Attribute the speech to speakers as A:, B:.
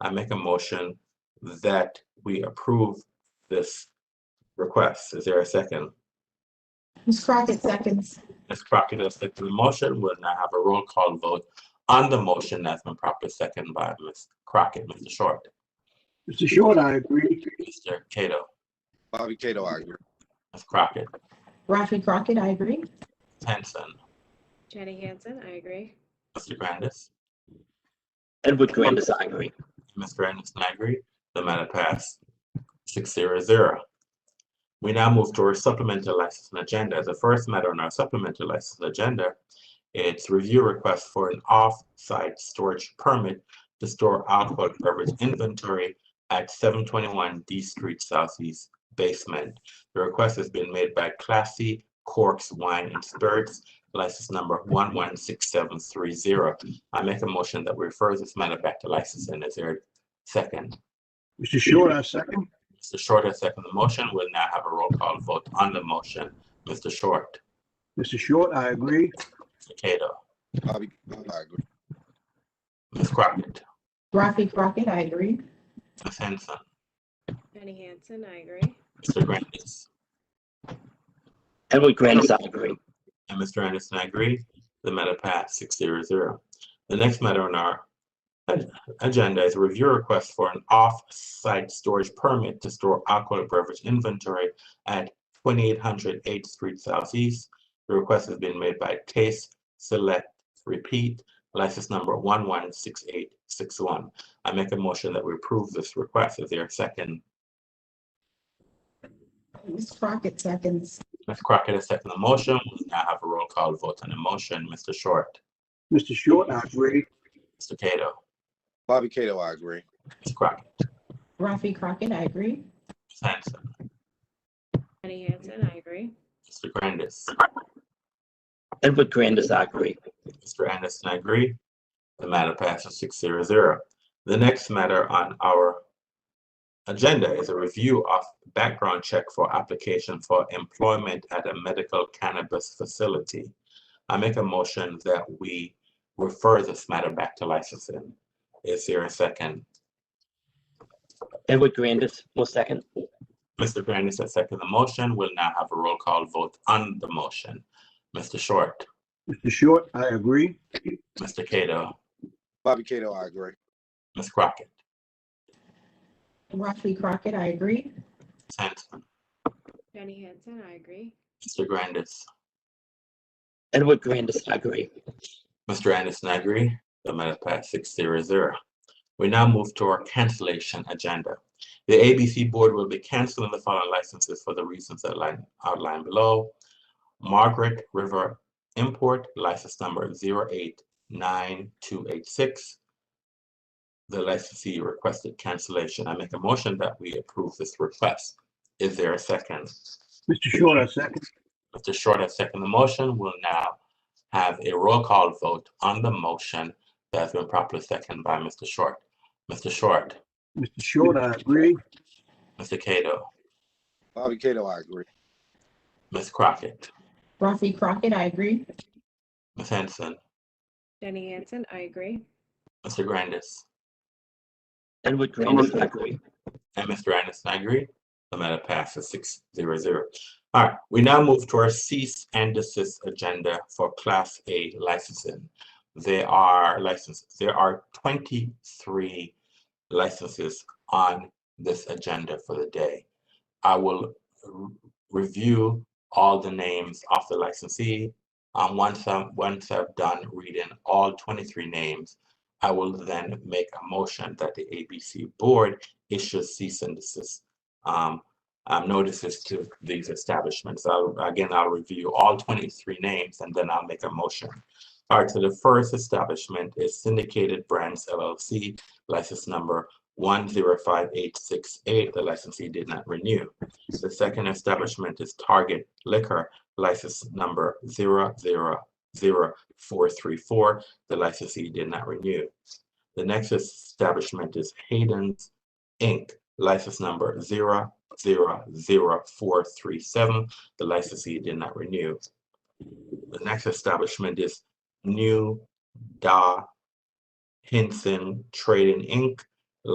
A: I make a motion that we approve this request. Is there a second?
B: Ms. Crockett seconds.
A: Ms. Crockett has seconded the motion. We'll now have a roll call vote on the motion that's been properly seconded by Ms. Crockett. Mr. Short,
C: Mr. Short, I agree.
A: Mr. Cato,
D: Bobby Cato, I agree.
A: Ms. Crockett,
B: Rafi Crockett, I agree.
A: Hanson,
E: Jenny Hansen, I agree.
A: Mr. Grandis,
F: Edward Grandis, I agree.
A: Mr. Anderson, I agree. The matter passed six zero zero. We now move to our supplemental licensing agenda. The first matter on our supplemental licensing agenda, it's review request for an off-site storage permit to store alcohol beverage inventory at seven twenty-one D Street Southeast basement. The request has been made by Classy Corks Wine and Spirits, license number one one six seven three zero. I make a motion that we refer this matter back to licensing. Is there a second?
C: Mr. Short, I second.
A: Mr. Short has seconded the motion. We'll now have a roll call vote on the motion. Mr. Short,
C: Mr. Short, I agree.
A: Mr. Cato,
D: Bobby, Cato, I agree.
A: Ms. Crockett,
B: Rafi Crockett, I agree.
A: Ms. Henson,
E: Jenny Hansen, I agree.
A: Mr. Grandis,
F: Edward Grandis, I agree.
A: and Mr. Anderson, I agree. The matter passed six zero zero. The next matter on our ag- agenda is a review request for an off-site storage permit to store alcoholic beverage inventory at 2800 8th Street Southeast. The request has been made by Taste Select Repeat, license number one one six eight six one. I make a motion that we approve this request. Is there a second?
B: Ms. Crockett seconds.
A: Ms. Crockett has seconded the motion. We now have a roll call vote on the motion. Mr. Short,
C: Mr. Short, I agree.
A: Mr. Cato,
D: Bobby Cato, I agree.
A: Ms. Crockett.
B: Rafi Crockett, I agree.
A: Ms. Hanson,
E: Jenny Hansen, I agree.
A: Mr. Grandis,
F: Edward Grandis, I agree.
A: Mr. Anderson, I agree. The matter passes six zero zero. The next matter on our agenda is a review of background check for application for employment at a medical cannabis facility. I make a motion that we refer this matter back to licensing. Is there a second?
F: Edward Grandis, one second.
A: Mr. Grandis has seconded the motion. We'll now have a roll call vote on the motion. Mr. Short,
C: Mr. Short, I agree.
A: Mr. Cato,
D: Bobby Cato, I agree.
A: Ms. Crockett,
B: Rafi Crockett, I agree.
A: Ms. Hanson,
E: Jenny Hansen, I agree.
A: Mr. Grandis,
F: Edward Grandis, I agree.
A: Mr. Anderson, I agree. The matter passed six zero zero. We now move to our cancellation agenda. The ABC Board will be canceling the following licenses for the reasons outlined, outlined below. Margaret River Import, license number zero eight nine two eight six. The licensee requested cancellation. I make a motion that we approve this request. Is there a second?
C: Mr. Short, I second.
A: Mr. Short has seconded the motion. We'll now have a roll call vote on the motion that has been properly seconded by Mr. Short. Mr. Short,
C: Mr. Short, I agree.
A: Mr. Cato,
D: Bobby Cato, I agree.
A: Ms. Crockett,
B: Rafi Crockett, I agree.
A: Ms. Henson,
E: Jenny Hansen, I agree.
A: Mr. Grandis,
F: Edward Grandis, I agree.
A: and Mr. Anderson, I agree. The matter passes six zero zero. All right, we now move to our cease and desist agenda for Class A licensing. There are licenses, there are twenty-three licenses on this agenda for the day. I will r- review all the names of the licensee. Um, once I'm, once I've done reading all twenty-three names, I will then make a motion that the ABC Board issue cease and desist um, um, notices to these establishments. I'll, again, I'll review all 23 names and then I'll make a motion. All right, so the first establishment is Syndicated Brands LLC, license number 105868. The licensee did not renew. The second establishment is Target Liquor, license number 000434. The licensee did not renew. The next establishment is Hayden's Inc., license number zero zero zero four three seven. The licensee did not renew. The next establishment is New Da Hinson Trading Inc.,